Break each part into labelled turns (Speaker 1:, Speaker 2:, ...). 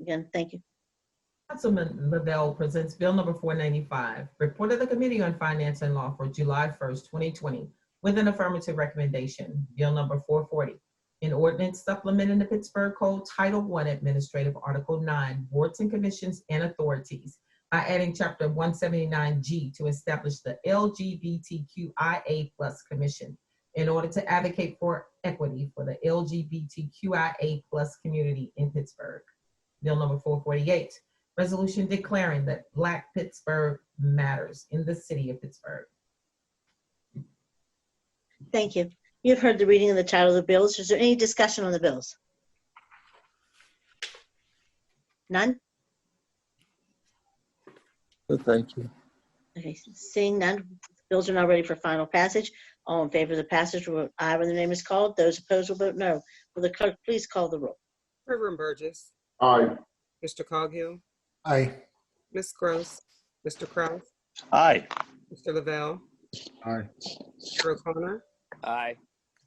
Speaker 1: again, thank you.
Speaker 2: Councilman Lavelle presents Bill Number 495, Report of the Committee on Finance and Law for July 1st, 2020, with an affirmative recommendation. Bill Number 440, an ordinance supplementing the Pittsburgh Code Title I Administrative Article 9, Boards and Commissions and Authorities by adding Chapter 179G to establish the LGBTQIA+ Commission in order to advocate for equity for the LGBTQIA+ community in Pittsburgh. Bill Number 448, resolution declaring that Black Pittsburgh matters in the city of Pittsburgh.
Speaker 1: Thank you. You've heard the reading and the title of the bills. Is there any discussion on the bills? None?
Speaker 3: Well, Thank you.
Speaker 1: Okay, seeing none, bills are now ready for final passage. All in favor of the passage will vote aye when the name is called. Those opposed will vote no. Will the clerk please call the roll?
Speaker 4: Reverend Burgess,
Speaker 5: Aye.
Speaker 4: Mr. Coghill,
Speaker 5: Aye.
Speaker 4: Miss Gross, Mr. Kraus,
Speaker 6: Aye.
Speaker 4: Mr. Lavelle,
Speaker 5: Aye.
Speaker 4: Mr. O'Connor,
Speaker 6: Aye.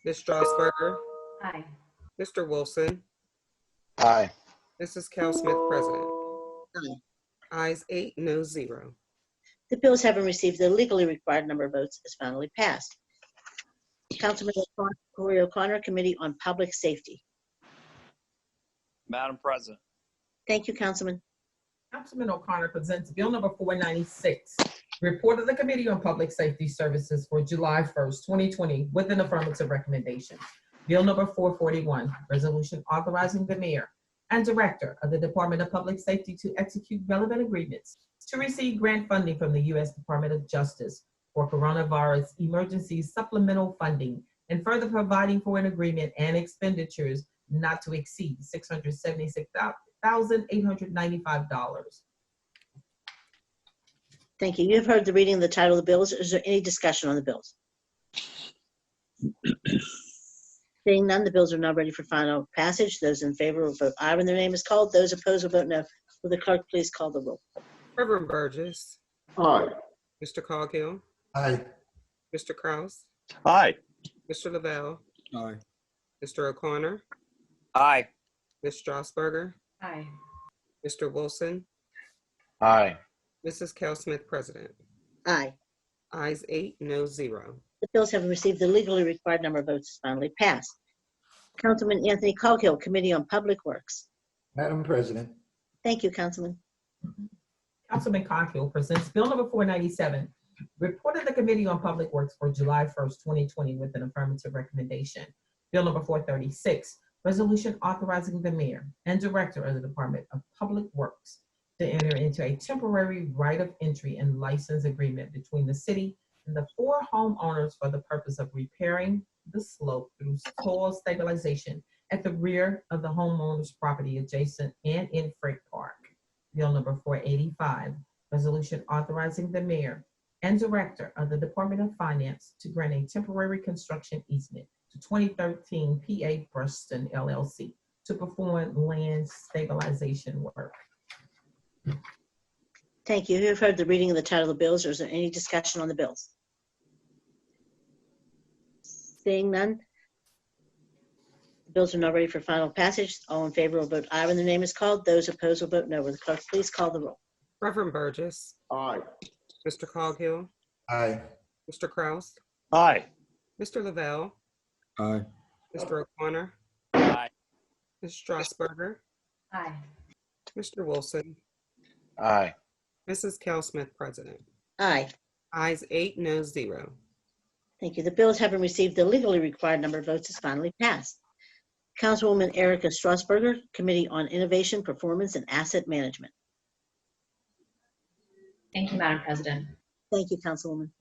Speaker 4: Ms. Strasburger,
Speaker 7: Aye.
Speaker 4: Mr. Wilson,
Speaker 6: Aye.
Speaker 4: Mrs. Cal Smith, President. Eyes eight, no zero.
Speaker 1: The bills having received the legally required number of votes is finally passed. Councilman O'Con- Corey O'Connor, Committee on Public Safety.
Speaker 6: Madam President,
Speaker 1: Thank you, Councilman.
Speaker 2: Councilman O'Connor presents Bill Number 496, Report of the Committee on Public Safety Services for July 1st, 2020, with an affirmative recommendation. Bill Number 441, resolution authorizing the mayor and director of the Department of Public Safety to execute relevant agreements to receive grant funding from the U.S. Department of Justice for coronavirus emergency supplemental funding and further providing for an agreement and expenditures not to exceed $676,000 thousand eight hundred ninety-five dollars.
Speaker 1: Thank you. You've heard the reading and the title of the bills. Is there any discussion on the bills? Seeing none, the bills are now ready for final passage. Those in favor will vote aye when their name is called. Those opposed will vote no. Will the clerk please call the roll?
Speaker 4: Reverend Burgess,
Speaker 5: Aye.
Speaker 4: Mr. Coghill,
Speaker 5: Aye.
Speaker 4: Mr. Kraus,
Speaker 6: Aye.
Speaker 4: Mr. Lavelle,
Speaker 5: Aye.
Speaker 4: Mr. O'Connor,
Speaker 6: Aye.
Speaker 4: Ms. Strasburger,
Speaker 7: Aye.
Speaker 4: Mr. Wilson,
Speaker 6: Aye.
Speaker 4: Mrs. Cal Smith, President.
Speaker 1: Aye.
Speaker 4: Eyes eight, no zero.
Speaker 1: The bills have received the legally required number of votes is finally passed. Councilman Anthony Coghill, Committee on Public Works.
Speaker 5: Madam President.
Speaker 1: Thank you, Councilman.
Speaker 2: Councilman Conkill presents Bill Number 497, Report of the Committee on Public Works for July 1st, 2020, with an affirmative recommendation. Bill Number 436, Resolution authorizing the mayor and director of the Department of Public Works to enter into a temporary right of entry and license agreement between the city and the four homeowners for the purpose of repairing the slope through soil stabilization at the rear of the homeowner's property adjacent and in Frick Park. Bill number 485, resolution authorizing the mayor and director of the Department of Finance to grant a temporary construction easement to 2013 PA Preston LLC to perform land stabilization work.
Speaker 1: Thank you. You've heard the reading of the title of the bills. Is there any discussion on the bills? Seeing none. The Bills are now ready for final passage. All in favor will vote aye when the name is called. Those opposed will vote no. Will the clerk please call the roll?
Speaker 4: Reverend Burgess,
Speaker 5: Aye.
Speaker 4: Mr. Coghill,
Speaker 5: Aye.
Speaker 4: Mr. Kraus,
Speaker 6: Aye.
Speaker 4: Mr. Lavelle,
Speaker 3: Aye.
Speaker 4: Mr. O'Connor,
Speaker 6: Aye.
Speaker 4: Ms. Strasburger,
Speaker 7: Aye.
Speaker 4: Mr. Wilson,
Speaker 6: Aye.
Speaker 4: Mrs. Cal Smith, President.
Speaker 1: Aye.
Speaker 4: Eyes eight, no zero.
Speaker 1: Thank you. The bills having received the legally required number of votes is finally passed. Councilwoman Erica Strasburger, Committee on Innovation, Performance, and Asset Management.
Speaker 7: Thank you, Madam President.
Speaker 1: Thank you, Councilwoman.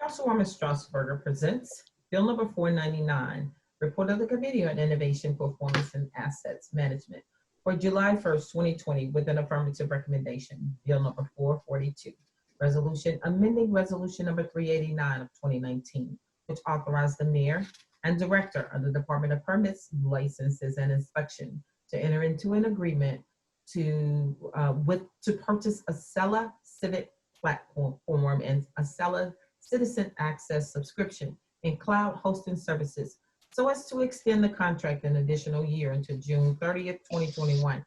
Speaker 2: Councilwoman Strasburger presents Bill Number 499, Report of the Committee on Innovation, Performance, and Assets Management for July 1st, 2020, with an affirmative recommendation. Bill Number 442, Resolution amending Resolution Number 389 of 2019, which authorized the mayor and director of the Department of Permits, Licenses, and Inspection to enter into an agreement to, uh, with, to purchase a Acela Civic Platform and Acela citizen access subscription and cloud hosting services so as to extend the contract an additional year until June 30th, 2021,